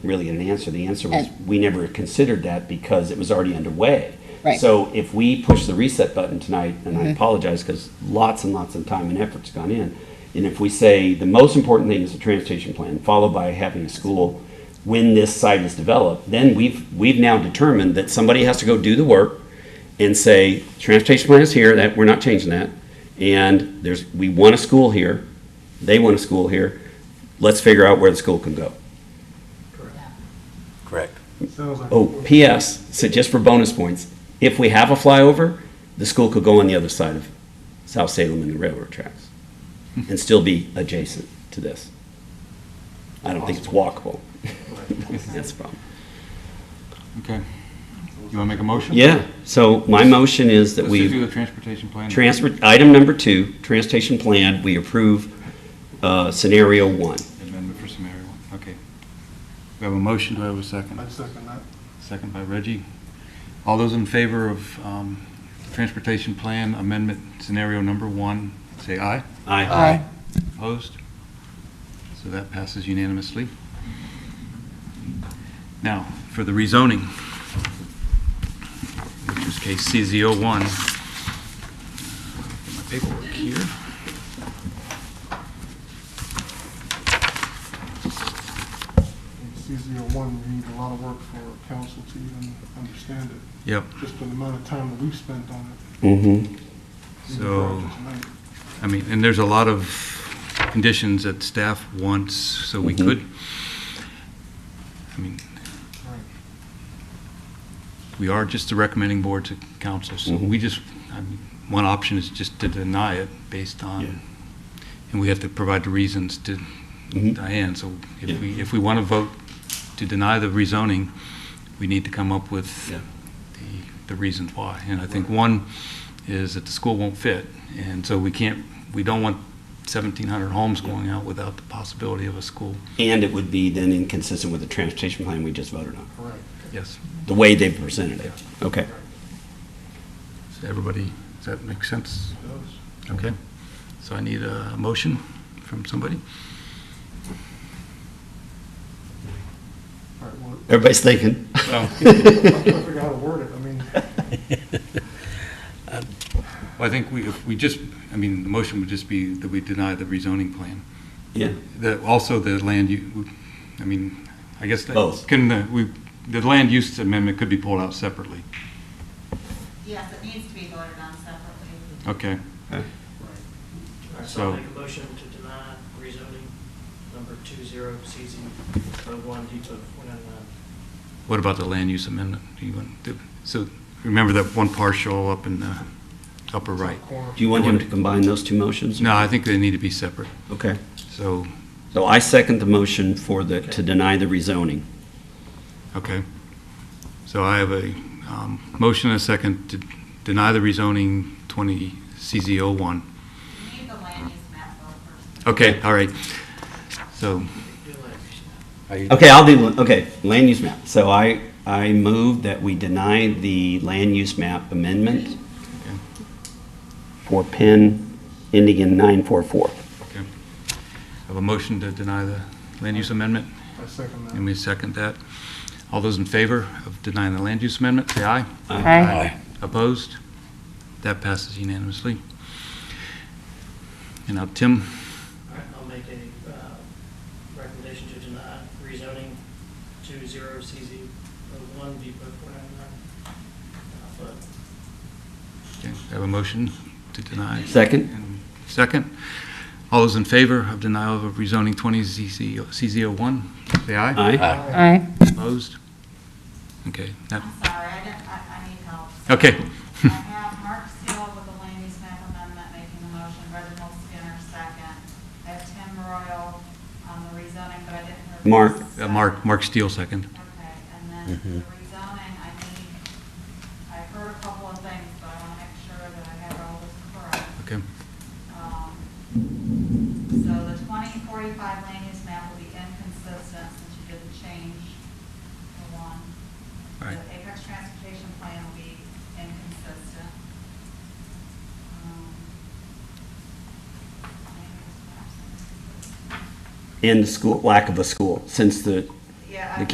really an answer. The answer was, And- we never considered that because it was already underway. Right. Mm-hmm. So if we push the reset button tonight, and I apologize because lots and lots of time and effort's gone in, and if we say the most important thing is the transportation plan, followed by having a school when this site is developed, then we've, we've now determined that somebody has to go do the work and say, transportation plan is here, that, we're not changing that, and there's, we want a school here, they want a school here, let's figure out where the school can go. Correct. Sounds like. Oh, P.S., so just for bonus points, if we have a flyover, the school could go on the other side of South Salem and the railroad tracks and still be adjacent to this. I don't think it's walkable. That's the problem. Okay. You want to make a motion? Yeah, so my motion is that Let's just do we, the transportation plan. transfer, item number two, transportation plan, we approve uh, scenario one. Amendment for some area one. Okay. We have a motion. Do I have a second? I second that. Second by Reggie. All those in favor of um, transportation plan amendment scenario number one, say aye. Aye. Aye. Opposed? So that passes unanimously. Now, for the rezoning, which is case CZ01. My paperwork here. CZO one, we need a lot of work for council to even understand it, Yep. just for the amount of time that we've spent on it. Mm-hmm. even So- prior to tonight. I mean, and there's a lot of conditions that staff wants, so we Mhm. could. I mean, Right. we are just the recommending board to council, so Mhm. we just, I mean, one option is just to deny it based Yeah. on, and we have to provide the reasons to Mhm. Diane, so Yeah. if we, if we want to vote to deny the rezoning, we need to come up with Yeah. the, the reasons why. And I think one is that the school won't fit, and so we can't, we don't want 1,700 homes going out without the possibility of a school. And it would be then inconsistent with the transportation plan we just voted on, Correct. Yes. the way they presented it. Okay. Does everybody, does that make sense? It does. Okay. So I need a motion from somebody? All right, well, Everybody's thinking. I'm trying to figure out how to word it, I mean, Well, I think we, if we just, I mean, the motion would just be that we deny the rezoning plan. Yeah. The, also the land u, I mean, I guess. that- Both. Can, the- we, the land use amendment could be pulled out separately. Yes, it needs to be voted on separately. Okay. All right, So- so I'll make a motion to deny rezoning number two zero CZ one D to one nine nine. What about the land use amendment? Do you want, to- so remember that one partial up in the upper right? corner. Do you want him to combine those two motions? No, I think they need to be separate. Okay. So, So I second the motion for the, to deny the rezoning. okay. So I have a um, motion and a second to deny the rezoning 20 CZ oh one You need the land use map vote first. Okay, all right. So. Do like, Okay, I'll do, okay, land use map. So I, I move that we deny the land use map amendment for PIN ending in 944. Okay. Have a motion to deny the land use amendment, I second that. and we second that. All those in favor of denying the land use amendment, say aye. Aye. Opposed? That passes unanimously. And now, Tim, all right, I'll make a, uh, recommendation to deny rezoning two zero CZ one D to one nine Uh, nine. But okay, have a motion to deny. Second? And Second. All those in favor of denial of rezoning 20 CZ CZ01, say aye. Aye. Aye. Opposed? Okay, that, I'm sorry, I didn't, I, I need help. okay. I have Mark Steele with the land use map amendment making the motion, Reginald Skinner second. I have Tim Royal on the rezoning, but I didn't. hear the Mark. Uh, second. Mark, Mark Steele, second. Okay, and then the rezoning, I need, I heard a couple of things, but I want to make sure that I have all this correct. Okay. Um, So the twenty forty-five land use map will be inconsistent since you didn't change the one. Right. The Apex Transportation Plan will be inconsistent. Um, land use map's inconsistent. And the school, lack of a school, since the Yeah. I- The